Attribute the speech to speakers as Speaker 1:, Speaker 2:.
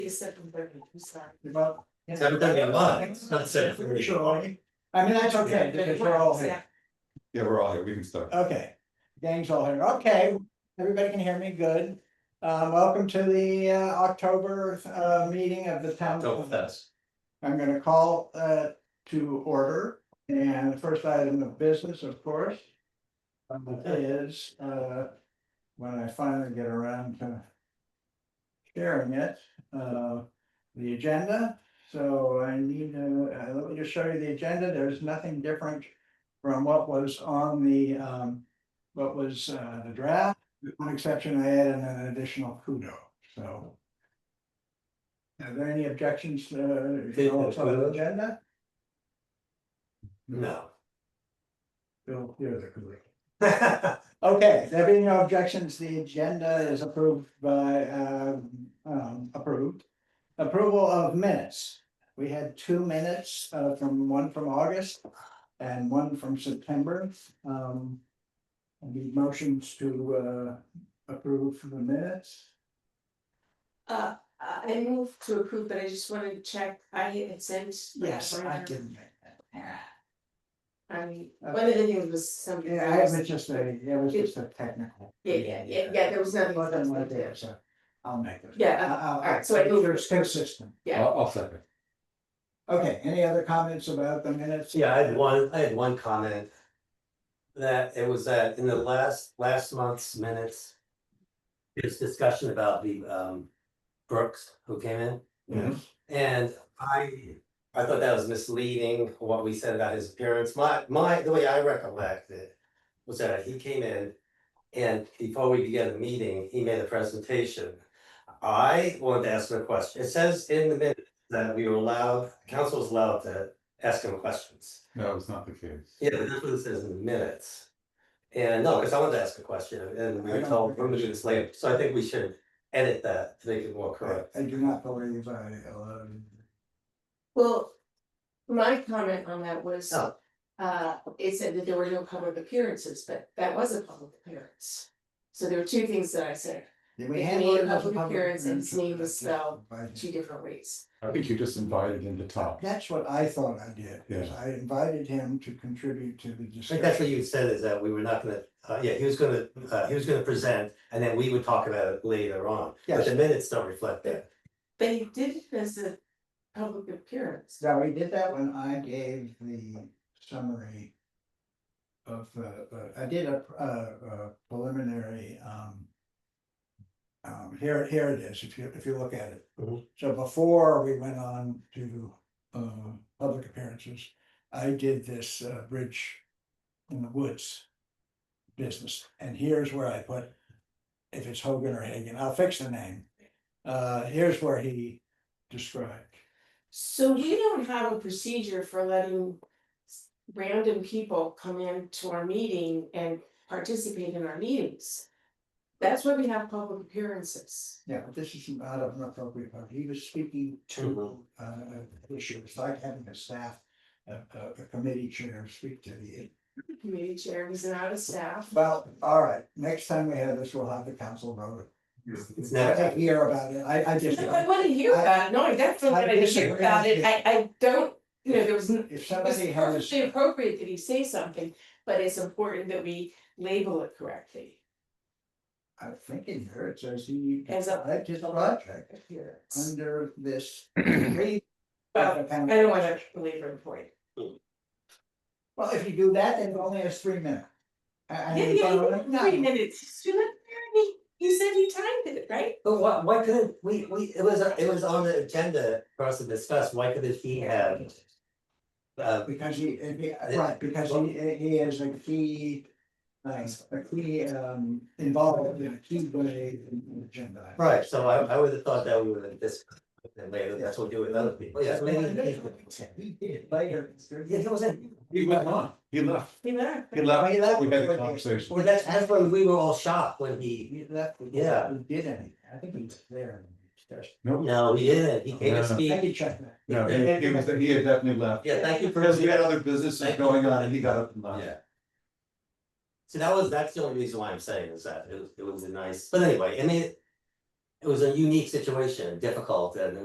Speaker 1: is seven thirty, I'm sorry.
Speaker 2: Well,
Speaker 3: Seven thirty in line, it's not seven thirty.
Speaker 2: sure, I mean, that's okay, because we're all here,
Speaker 3: Yeah, we're all here, we can start.
Speaker 2: okay, uh, gang's all here, okay, everybody can hear me, good. Um, welcome to the uh October uh meeting of the town.
Speaker 3: Go with us.
Speaker 2: I'm gonna call uh to order, and the first item of business, of course. um, Is uh when I finally get around to. Sharing it, uh the agenda, so I need to, uh, let me just show you the agenda, there's nothing different. From what was on the um, what was uh the draft, with one exception, I added an additional kudo, so. Are there any objections to uh,
Speaker 3: Did the
Speaker 2: the
Speaker 3: kudo?
Speaker 2: agenda?
Speaker 3: No.
Speaker 2: Bill, you're the kudo. Okay, there being no objections, the agenda is approved by, um, um, approved. Approval of minutes. We had two minutes, uh, from one from August and one from September. Um, I need motions to, uh, approve for the minutes.
Speaker 1: Uh, I moved to approve, but I just wanted to check, I had sent. my
Speaker 2: Yes, I
Speaker 1: brother-
Speaker 2: didn't make that.
Speaker 1: I mean, one of the things was some.
Speaker 2: Yeah, I- it was just a, it was just a technical.
Speaker 1: Yeah, yeah, yeah, yeah, there was nothing.
Speaker 2: Wasn't what it is, so I'll make it.
Speaker 1: Yeah, all right, so I moved-
Speaker 2: It's consistent.
Speaker 1: Yeah.
Speaker 3: I'll, I'll second.
Speaker 2: Okay, any other comments about the minutes?
Speaker 3: Yeah, I had one, I had one comment. That it was that in the last, last month's minutes. There's discussion about the um Brooks who came in.
Speaker 2: Yes.
Speaker 3: And I, I thought that was misleading, what we said about his appearance, my, my, the way I recollect it. Was that he came in and before we began the meeting, he made a presentation. I wanted to ask him a question, it says in the minute that we were allowed, council was allowed to ask him questions.
Speaker 4: No, it's not the case.
Speaker 3: Yeah, but that's what it says in the minutes. And no, because I wanted to ask a question and we
Speaker 2: I
Speaker 3: were
Speaker 2: don't
Speaker 3: told,
Speaker 2: think
Speaker 3: we're gonna
Speaker 2: it's-
Speaker 3: do this later, so I think we should edit that to make it more
Speaker 2: I
Speaker 3: correct.
Speaker 2: I do not believe I uh, allowed.
Speaker 1: Well, my comment on that was,
Speaker 3: Oh.
Speaker 1: uh, it said that there were no public appearances, but that was a public appearance. So there were two things that I said,
Speaker 2: Did
Speaker 1: He
Speaker 2: handle
Speaker 1: made
Speaker 2: it
Speaker 1: a
Speaker 2: as a
Speaker 1: public appearance and his name was spelled
Speaker 2: By-
Speaker 1: two different ways.
Speaker 4: I think you just invited in the top.
Speaker 2: That's what I thought I did, is
Speaker 4: Yeah.
Speaker 2: I invited him to contribute to the
Speaker 3: I think that's what
Speaker 2: discussion.
Speaker 3: you said is that we were not gonna, uh, yeah, he was gonna, uh, he was gonna present and then we would talk about it later on. But the
Speaker 2: Yes.
Speaker 3: minutes don't reflect that.
Speaker 1: But he did it as a public appearance.
Speaker 2: So we did that when I gave the summary. Of the, the- I did a, uh, preliminary, um. Um, here, here it is, if you, if you look at it.
Speaker 3: Mhm.
Speaker 2: So before we went on to, uh, public appearances, I did this, uh, bridge in the woods. Business, and here's where I put, if it's Hogan or Hagan, I'll fix the name. Uh, here's where he described.
Speaker 1: So we don't have a procedure for letting s- random people come in to our meeting and participate in our meetings. That's why we have public appearances.
Speaker 2: Yeah, but this is not an appropriate part. He was speaking to uh an issue. It's like having a staff, a a a committee chair speak to the.
Speaker 1: Committee chair was not a staff.
Speaker 2: Well, all right, next time we have this, we'll have the council vote.
Speaker 3: It's
Speaker 2: it. I
Speaker 3: not,
Speaker 2: didn't hear about it. I I just.
Speaker 1: No, I wouldn't hear about it, no, I definitely
Speaker 2: I
Speaker 1: wouldn't hear
Speaker 2: disagree.
Speaker 1: about it, I I don't, you know, there was. n-
Speaker 2: If
Speaker 1: It was
Speaker 2: somebody has,
Speaker 1: perfectly appropriate that he say something, but it's important that we label it correctly.
Speaker 2: I think in here it says he.
Speaker 1: As a-
Speaker 2: I just project
Speaker 1: Appearance.
Speaker 2: under this. three-
Speaker 1: Well, I don't wanna belabor the point.
Speaker 2: Well, if you do that, then it only has three minutes. I- I
Speaker 1: Yeah,
Speaker 2: mean,
Speaker 1: yeah,
Speaker 2: no,
Speaker 1: yeah, three minutes, you look there and he, he said he timed it, right?
Speaker 3: but why, why couldn't, we, we, it was, it was on the agenda for us to discuss, why couldn't he have? Uh,
Speaker 2: Because he, if he- right, because he, he is a key, uh, a key, um, involved in a key way in the agenda.
Speaker 3: right, so I, I would have thought that we would have discussed it later, that's what we do with other people, yeah, maybe.
Speaker 2: He did later.
Speaker 3: Yeah, he wasn't,
Speaker 4: He went on, he left,
Speaker 1: He left.
Speaker 4: he left,
Speaker 3: he left.
Speaker 4: we had a conversation.
Speaker 3: Well, that's, that's when we were all shocked when he,
Speaker 2: He left. we-
Speaker 3: Yeah.
Speaker 2: We did anything. I think he was there.
Speaker 4: No,
Speaker 3: no, he didn't, he came to
Speaker 4: No.
Speaker 2: I
Speaker 3: speak.
Speaker 2: could check that.
Speaker 4: no, he he was, he had definitely left.
Speaker 3: Yeah, thank you for.
Speaker 4: Because he had other businesses
Speaker 3: Thank you.
Speaker 4: going on and he got up and left.
Speaker 3: Yeah. So that was, that's the only reason why I'm saying is that it was, it was a nice, but anyway, I mean. It was a unique situation, difficult, and